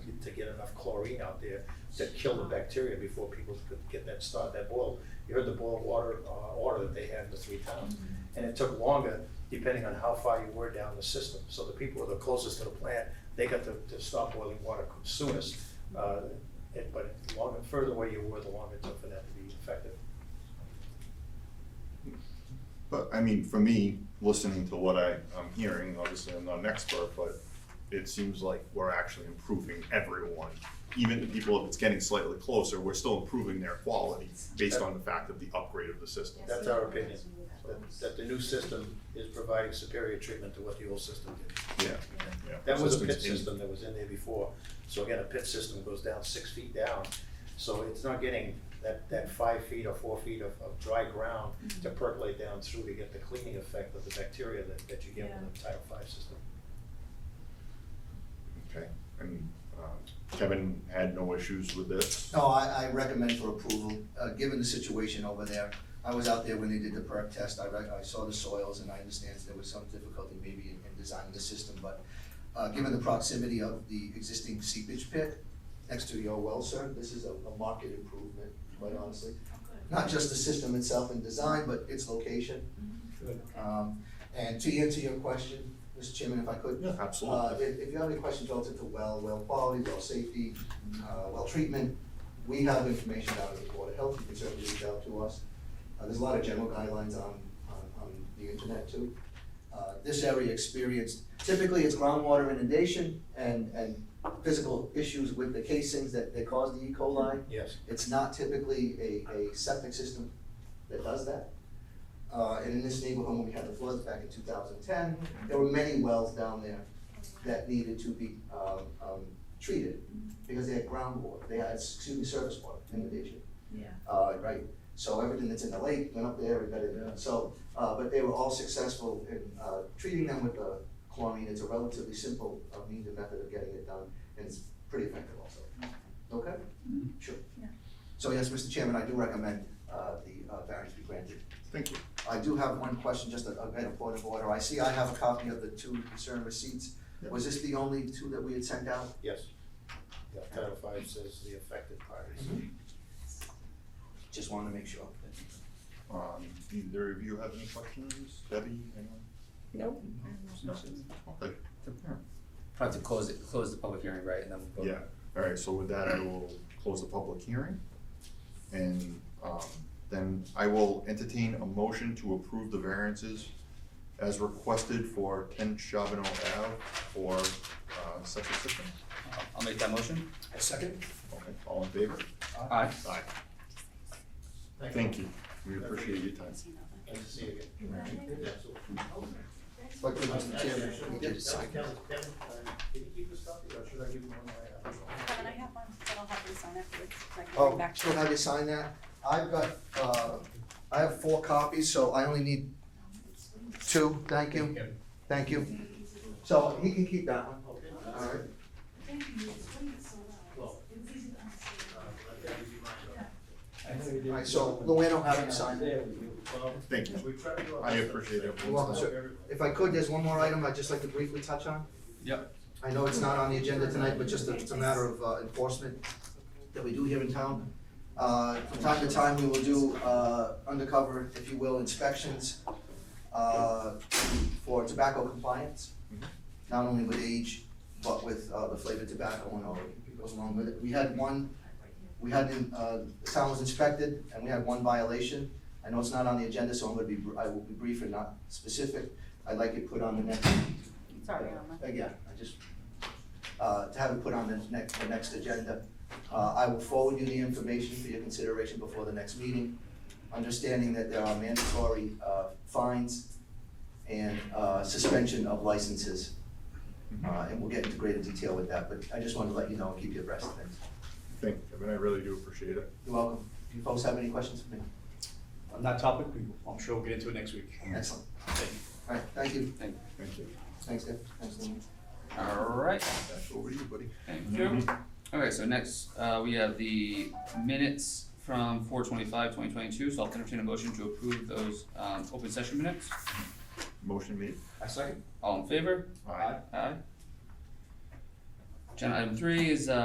get enough chlorine out there to kill the bacteria before people could get that start, that boil. You heard the boil water, uh, order that they had in the three towns. And it took longer depending on how far you were down the system. So the people who were the closest to the plant, they got to, to stop boiling water soonest. Uh, it- but the longer, further away you were, the longer it took for that to be effective. But I mean, for me, listening to what I, I'm hearing, obviously I'm not an expert, but it seems like we're actually improving everyone. Even the people, if it's getting slightly closer, we're still improving their quality based on the fact of the upgrade of the system. That's our opinion, that, that the new system is providing superior treatment to what the old system did. Yeah, yeah. That was a System's pit in- system that was in there before, so again, a pit system goes down six feet down, so it's not getting that, that five feet or four feet of, of dry ground to percolate down through to get the cleaning effect of the bacteria that, that you get with a Title V system. Okay, and, um, Kevin had no issues with this? No, I, I recommend for approval, uh, given the situation over there. I was out there when they did the perk test, I rec I saw the soils and I understand there was some difficulty maybe in, in designing the system, but uh, given the proximity of the existing seepage pit next to your well, sir, this is a, a market improvement, quite honestly. Not just the system itself and design, but its location. Um, and to answer your question, Mr. Chairman, if I could. Yeah, Uh, absolutely. if, if you have any questions relative to well, well quality, well safety, uh, well treatment, we have information out of the Board of Health, you can certainly reach out to us. Uh, there's a lot of general guidelines on, on, on the internet too. Uh, this area experienced, typically it's groundwater inundation and, and physical issues with the casings that, that cause the E. coli. Yes. It's not typically a, a septic system that does that. Uh, and in this neighborhood, when we had the floods back in two thousand and ten, there were many wells down there that needed to be, um, um, treated because they had groundwater, they had, excuse me, surface water inundation. Yeah. Uh, right, so everything that's in the lake went up there, we got it, so, uh, but they were all successful in, uh, treating them with the chlorine, it's a relatively simple, uh, means and method of getting it done, and it's pretty effective also. Okay? Sure. Yeah. So yes, Mr. Chairman, I do recommend, uh, the, uh, variance be granted. Thank you. I do have one question, just a, a bit of point of order, I see I have a copy of the two concern receipts, was this the only two that we had sent out? Yes. Yeah, Title V says the affected parties. Just wanted to make sure. Um, either of you have any questions? Debbie, anyone? Nope. No. Okay. Have to close it, close the public hearing, right, and then we'll vote. Yeah, all right, so with that, I will close the public hearing. And, um, then I will entertain a motion to approve the variances as requested for ten Charbonneau Ave for, uh, septic system. I'll- Uh, I'll make that motion. Okay, all in favor? Aye. Aye. Thank you, we appreciate your time. Nice to see you again. Absolutely. But, Mr. Chairman, Actually, we did sign Kevin, Kevin, uh, can you keep this copy, or should I give you one of my? Kevin, I have one, but I'll have you sign afterwards, so I can bring Oh, back to so you. have you sign that? I've got, uh, I have four copies, so I only need two, thank you, thank you. So he can keep that one, Okay. alright? Well, uh, I've got to give you mine, though. Alright, so Luann will have you sign it. Well, Thank you. we try to do our I best. appreciate it. You're welcome, sir. Everybody. If I could, there's one more item I'd just like to briefly touch on. Yep. I know it's not on the agenda tonight, but just a- it's a matter of uh, enforcement that we do here in town. Uh, From time to time, we will do uh, undercover, if you will, inspections uh, for tobacco compliance, not only with age, but with uh, the flavored tobacco and all that goes along with it. We had one, we had, uh, the town was inspected, and we had one violation. I know it's not on the agenda, so I'm gonna be, br- I will be brief and not specific. I'd like it put on the next. Sorry, Alma. Again, I just, uh, to have it put on the next, the next agenda. Uh, I will forward you the information for your consideration before the next meeting, understanding that there are mandatory, uh, fines and, uh, suspension of licenses. Mm-hmm. Uh, and we'll get into greater detail with that, but I just wanted to let you know and keep you abreast of things. Thank you, Kevin, I really do appreciate it. You're welcome. Do you folks have any questions for me? On that topic, we- I'm sure we'll get into it next week. Excellent. All right, thank you. Thank, Thank you. Thanks, Deb. Thanks, Lynn. all right, Back over to you, buddy. thank you. Okay, so next, uh, we have the minutes from four twenty-five, twenty twenty-two, so I'll entertain a motion to approve those, um, open session minutes. Motion made. I second. All in favor? Aye. Agenda item three is, uh,